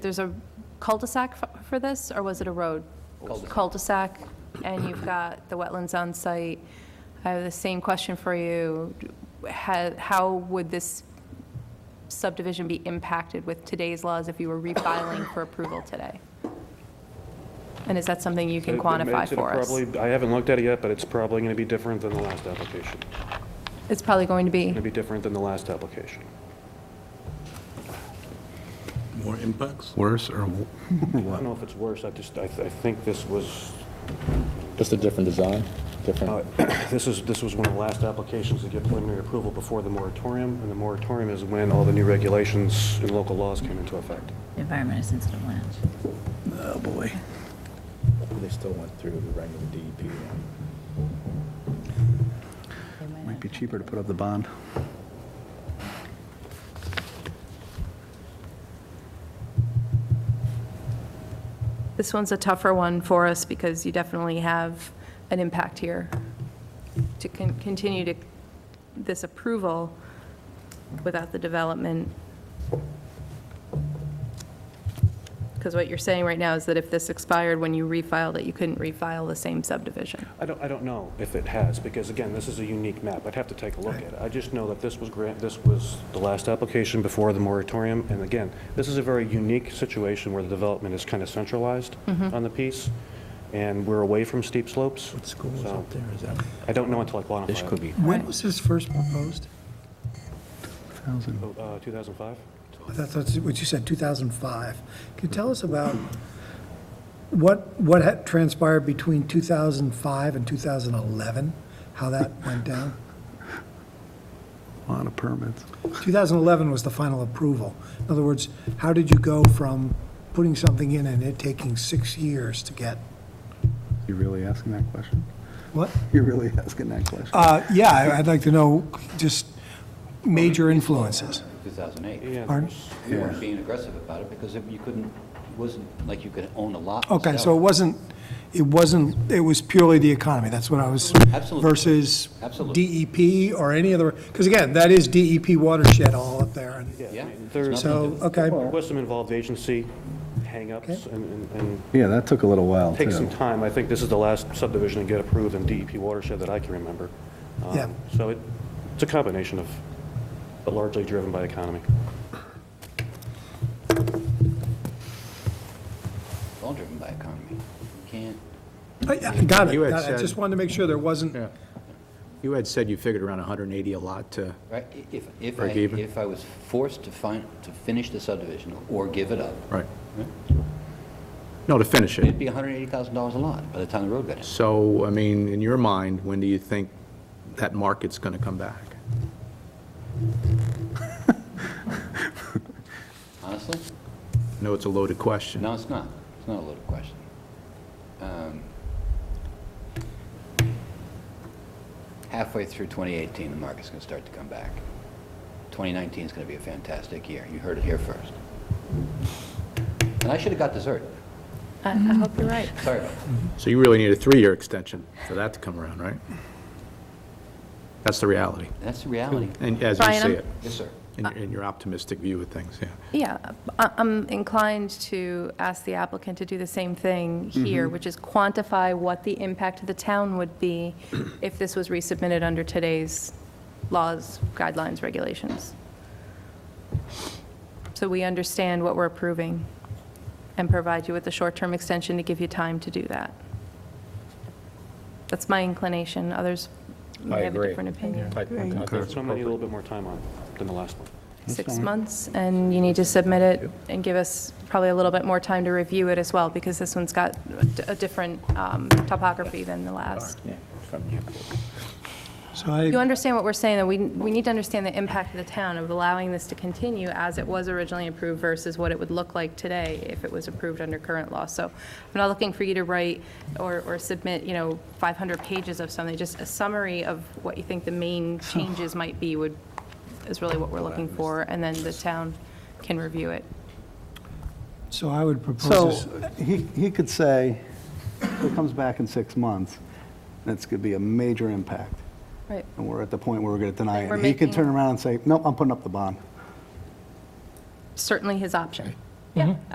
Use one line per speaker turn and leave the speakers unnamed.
there's a cul-de-sac f- for this, or was it a road? Cul-de-sac, and you've got the wetlands on site. I have the same question for you. How, how would this subdivision be impacted with today's laws if you were refiling for approval today? And is that something you can
It- it
quantify
makes it
for us?
probably- I haven't looked at it yet, but it's probably going to be different than the last application.
It's probably going to be,
Going to be different than the last application.
More impacts?
Worse or, w-
I don't know if it's worse, I just, I I think this was,
Just a different design,
uh,
Oh,
different,
this is, this was one of the last applications to get preliminary approval before the moratorium, and the moratorium is when all the new regulations and local laws came into effect.
Environment is sensitive land.
Oh, boy.
they still went through the regular DEP one.
They might
might
not-
be cheaper to put up the bond.
this one's a tougher one for us because you definitely have an impact here. To con- continue to, this approval without the development. Because what you're saying right now is that if this expired when you refiled it, you couldn't refile the same subdivision.
I don't, I don't know if it has, because again, this is a unique map. I'd have to take a look at it. I just know that this was grant, this was the last application before the moratorium. And again, this is a very unique situation where the development is kind of centralized on the piece, and we're away from steep slopes.
What school is up there, is that?
I don't know until I quantify it.
This could be,
When was this first proposed?
Thousand.
Uh, 2005?
I thought That's what you said, 2005. Could you tell us about what, what had transpired between 2005 and 2011? How that went down?
Lot of permits.
2011 was the final approval. In other words, how did you go from putting something in and it taking six years to get?
You really asking that question?
What?
You're really asking that question?
Uh, yeah, I- I'd like to know just major influences.
2008.
Yeah,
Pardon?
We weren't being aggressive about it because if you couldn't, it wasn't like you could own a lot. and
Okay, so
sell
it
it.
wasn't, it wasn't, it was purely the economy, that's what I was,
Absolutely.
versus
Absolutely.
DEP or any other, because again, that is DEP watershed all up there. and-
Yeah.
There's, there
So, okay,
was some involved agency hangups
Okay.
and, and- and
Yeah, that took a little while,
take some
too.
time. I think this is the last subdivision to get approved in DEP watershed that I can remember. Um,
Yeah.
So it, it's a combination of, but largely driven by economy.
It's
uh,
all driven by economy. You can't,
I- I got it,
You had
got it. I just
said-
wanted to make sure there wasn't,
Yeah. You had said you figured around 180 a lot to,
right? I- If, if I,
Break even.
if I was forced to find, to finish the subdivision or give it up,
right? No, to finish
it'd
it.
be $180,000 a lot by the time the road got in.
So, I mean, in your mind, when do you think that market's going to come back?
Honestly?
No, it's a loaded question.
No, it's not. It's not a loaded question. Um, Halfway through 2018, the market's going to start to come back. 2019 is going to be a fantastic year. You heard it here first. And I should have got dessert.
I I hope you're right.
Sorry about that.
So you really need a three-year extension for that to come around, right? That's the reality,
That's the reality.
and as you see
Brian, I'm-
it,
Yes, sir.
in your- in your optimistic view of things, yeah.
Yeah, I- I'm inclined to ask the applicant to do the same thing here, which is quantify what the impact to the town would be if this was resubmitted under today's laws, guidelines, regulations. So we understand what we're approving and provide you with a short-term extension to give you time to do that. That's my inclination. Others may have a different opinion.
That's one I need a little bit more time on than the last one.
six months, and you need to submit it and give us probably a little bit more time to review it as well, because this one's got a d- a different um, topography than the last.
yeah, from you.
so I,
You understand what we're saying, that we, we need to understand the impact of the town of allowing this to continue as it was originally approved versus what it would look like today if it was approved under current law. So I'm not looking for you to write or, or submit, you know, 500 pages of something, just a summary of what you think the main changes might be would, is really what we're looking for, and then the town can review it.
so I would
So,
propose, this.
he, he could say, if it comes back in six months, that's going to be a major impact,
Right.
and we're at the point where we're going to deny
We're
it. He could
making-
turn around and say, nope, I'm putting up the bond.
Certainly his option. Yeah,